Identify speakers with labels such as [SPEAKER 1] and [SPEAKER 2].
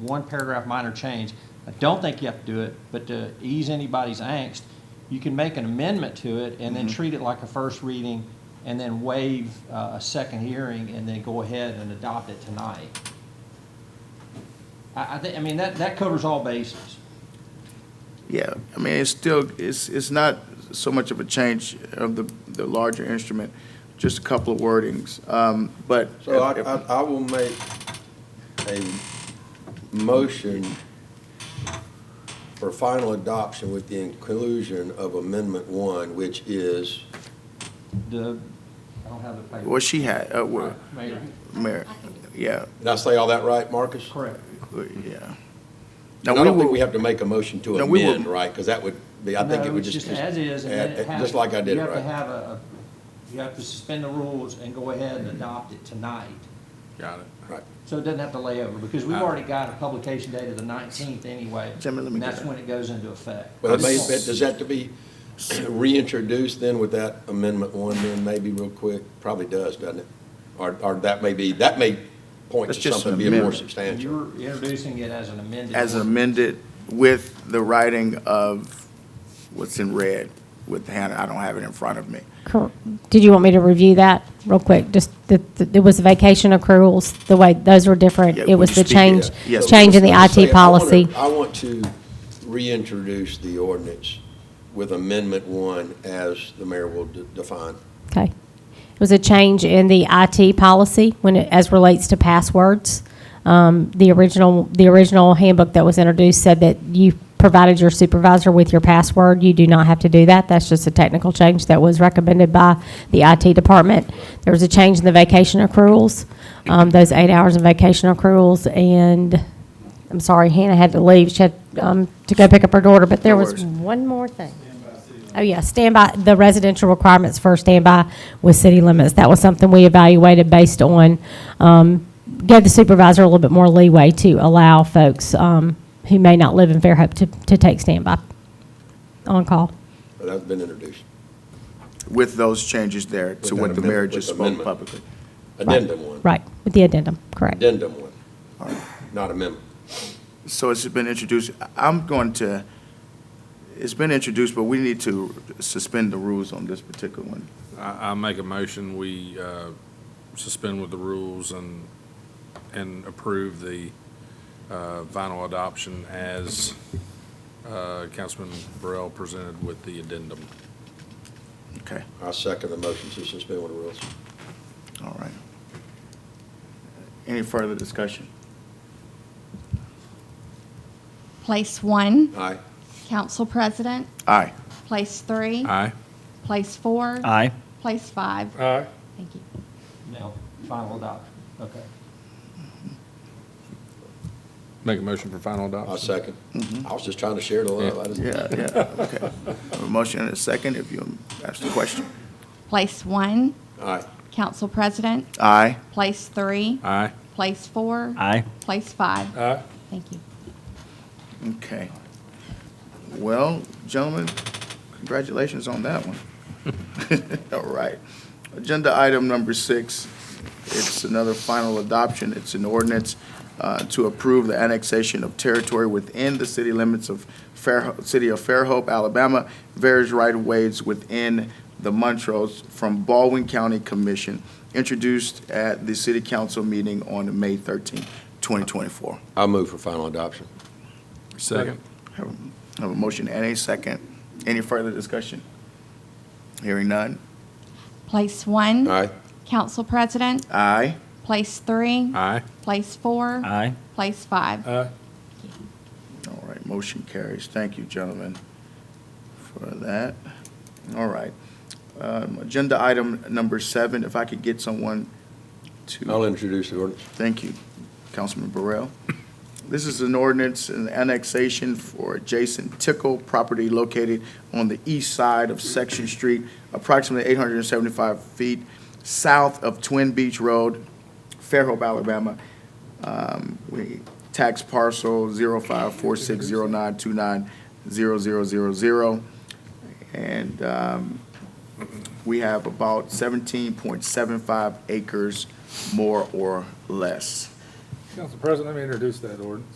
[SPEAKER 1] one paragraph minor change. I don't think you have to do it, but to ease anybody's angst, you can make an amendment to it and then
[SPEAKER 2] Mm-hmm.
[SPEAKER 1] treat it like a first reading and then waive uh, a second hearing and then go ahead and adopt it tonight. I, I think, I mean, that, that covers all bases.
[SPEAKER 3] Yeah, I mean, it's still, it's, it's not so much of a change of the, the larger instrument, just a couple of wordings, um, but.
[SPEAKER 2] So I, I, I will make a motion for final adoption with the inclusion of Amendment One, which is,
[SPEAKER 1] The, I don't have the paper.
[SPEAKER 3] What she had, uh, what,
[SPEAKER 1] Mayor.
[SPEAKER 3] Mayor, yeah,
[SPEAKER 2] did I say all that right, Marcus?
[SPEAKER 1] Correct.
[SPEAKER 3] yeah. Now,
[SPEAKER 2] And I
[SPEAKER 3] we
[SPEAKER 2] don't think
[SPEAKER 3] will,
[SPEAKER 2] we have to make a motion to
[SPEAKER 3] No, we will-
[SPEAKER 2] amend, right? Because that would be, I think it
[SPEAKER 1] No,
[SPEAKER 2] would
[SPEAKER 1] it's
[SPEAKER 2] just.
[SPEAKER 1] As is, and
[SPEAKER 2] add-
[SPEAKER 1] then it has.
[SPEAKER 2] Just like I did
[SPEAKER 1] You
[SPEAKER 2] it,
[SPEAKER 1] have to
[SPEAKER 2] right?
[SPEAKER 1] have a, a- you have to suspend the rules and go ahead and adopt it tonight.
[SPEAKER 4] Got it.
[SPEAKER 2] Right.
[SPEAKER 1] So it doesn't have to lay over, because we've already got a publication date of the nineteenth anyway.
[SPEAKER 3] Gentlemen, let me
[SPEAKER 1] And
[SPEAKER 3] get
[SPEAKER 1] that's
[SPEAKER 3] that.
[SPEAKER 1] when it goes into effect.
[SPEAKER 2] But it may, but does that to be reintroduced then with that Amendment One then maybe real quick? Probably does, doesn't it? Or, or that may be, that may point
[SPEAKER 3] That's
[SPEAKER 2] to
[SPEAKER 3] just an
[SPEAKER 2] something being more
[SPEAKER 3] amendment.
[SPEAKER 2] substantial.
[SPEAKER 1] You're introducing it as an amended.
[SPEAKER 3] as
[SPEAKER 1] ordinance.
[SPEAKER 3] amended with the writing of what's in red with Hannah, I don't have it in front of me.
[SPEAKER 5] Cor- Did you want me to review that real quick? Just, the- the- it was vacation accruals, the way, those were different.
[SPEAKER 3] Yeah,
[SPEAKER 5] It was
[SPEAKER 3] would you
[SPEAKER 5] the
[SPEAKER 3] speak it?
[SPEAKER 5] change,
[SPEAKER 3] Yes.
[SPEAKER 5] change in the
[SPEAKER 2] Let's say,
[SPEAKER 5] IT
[SPEAKER 2] I wanna-
[SPEAKER 5] policy.
[SPEAKER 2] I want to reintroduce the ordinance with Amendment One as the mayor will de- define.
[SPEAKER 5] Okay. It was a change in the IT policy when it, as relates to passwords. Um, the original, the original handbook that was introduced said that you provided your supervisor with your password. You do not have to do that. That's just a technical change that was recommended by the IT department. There was a change in the vacation accruals, um, those eight hours of vacation accruals, and I'm sorry, Hannah had to leave. She had um, to go pick up her daughter, but there
[SPEAKER 3] No
[SPEAKER 5] was
[SPEAKER 3] worries.
[SPEAKER 5] one more thing. Oh, yeah, standby, the residential requirements for standby with city limits. That was something we evaluated based on, um, gave the supervisor a little bit more leeway to allow folks, um, who may not live in Fairhope to, to take standby on call.
[SPEAKER 2] That's been introduced.
[SPEAKER 3] With those changes there to
[SPEAKER 2] With
[SPEAKER 3] what
[SPEAKER 2] that
[SPEAKER 3] the mayor
[SPEAKER 2] amendment-
[SPEAKER 3] just
[SPEAKER 2] with
[SPEAKER 3] spoke
[SPEAKER 2] amendment.
[SPEAKER 3] publicly.
[SPEAKER 2] Addendum One.
[SPEAKER 5] Right, with the addendum, correct.
[SPEAKER 2] Addendum One, not amendment.
[SPEAKER 3] So it's been introduced, I'm going to, it's been introduced, but we need to suspend the rules on this particular one.
[SPEAKER 4] I, I make a motion, we uh, suspend with the rules and, and approve the uh, final adoption as uh, Councilman Burrell presented with the addendum.
[SPEAKER 3] Okay,
[SPEAKER 2] I second the motion to suspend the rules.
[SPEAKER 3] all right. Any further discussion?
[SPEAKER 6] Place one,
[SPEAKER 2] Aye.
[SPEAKER 6] council president.
[SPEAKER 3] Aye.
[SPEAKER 6] Place three.
[SPEAKER 4] Aye.
[SPEAKER 6] Place four.
[SPEAKER 7] Aye.
[SPEAKER 6] Place five.
[SPEAKER 4] Aye.
[SPEAKER 6] Thank you.
[SPEAKER 1] Now, final adoption, okay.
[SPEAKER 4] Make a motion for final
[SPEAKER 2] I
[SPEAKER 4] adoption.
[SPEAKER 2] second. I was just trying to share the love. I just-
[SPEAKER 3] Mm-hmm. Yeah, yeah, okay. A Motion and a second, if you ask the question.
[SPEAKER 6] Place one,
[SPEAKER 2] Aye.
[SPEAKER 6] council president.
[SPEAKER 3] Aye.
[SPEAKER 6] Place three.
[SPEAKER 4] Aye.
[SPEAKER 6] Place four.
[SPEAKER 7] Aye.
[SPEAKER 6] Place five.
[SPEAKER 4] Aye.
[SPEAKER 6] Thank you.
[SPEAKER 3] Okay. Well, gentlemen, congratulations on that one. All right. Agenda item number six, it's another final adoption. It's an ordinance uh, to approve the annexation of territory within the city limits of Fair, City of Fairhope, Alabama, various right-of-ways within the Montrose from Baldwin County Commission, introduced at the city council meeting on May 13, 2024.
[SPEAKER 2] I move for final adoption.
[SPEAKER 4] Second.
[SPEAKER 3] Have a- have a motion and a second. Any further discussion? Hearing none.
[SPEAKER 6] Place one.
[SPEAKER 2] Aye.
[SPEAKER 6] Council president.
[SPEAKER 3] Aye.
[SPEAKER 6] Place three.
[SPEAKER 4] Aye.
[SPEAKER 6] Place four.
[SPEAKER 7] Aye.
[SPEAKER 6] Place five.
[SPEAKER 4] Aye.
[SPEAKER 3] All right, motion carries. Thank you, gentlemen, for that. All right. Um, Agenda item number seven, if I could get someone to.
[SPEAKER 2] I'll introduce the ordinance.
[SPEAKER 3] Thank you, Councilman Burrell. This is an ordinance and annexation for adjacent Tickle property located on the east side of Section Street, approximately 875 feet south of Twin Beach Road, Fairhope, Alabama. Um, We Tax parcel 054609290000. And um, we have about 17.75 acres more or less.
[SPEAKER 8] Council President, let me introduce that ordinance.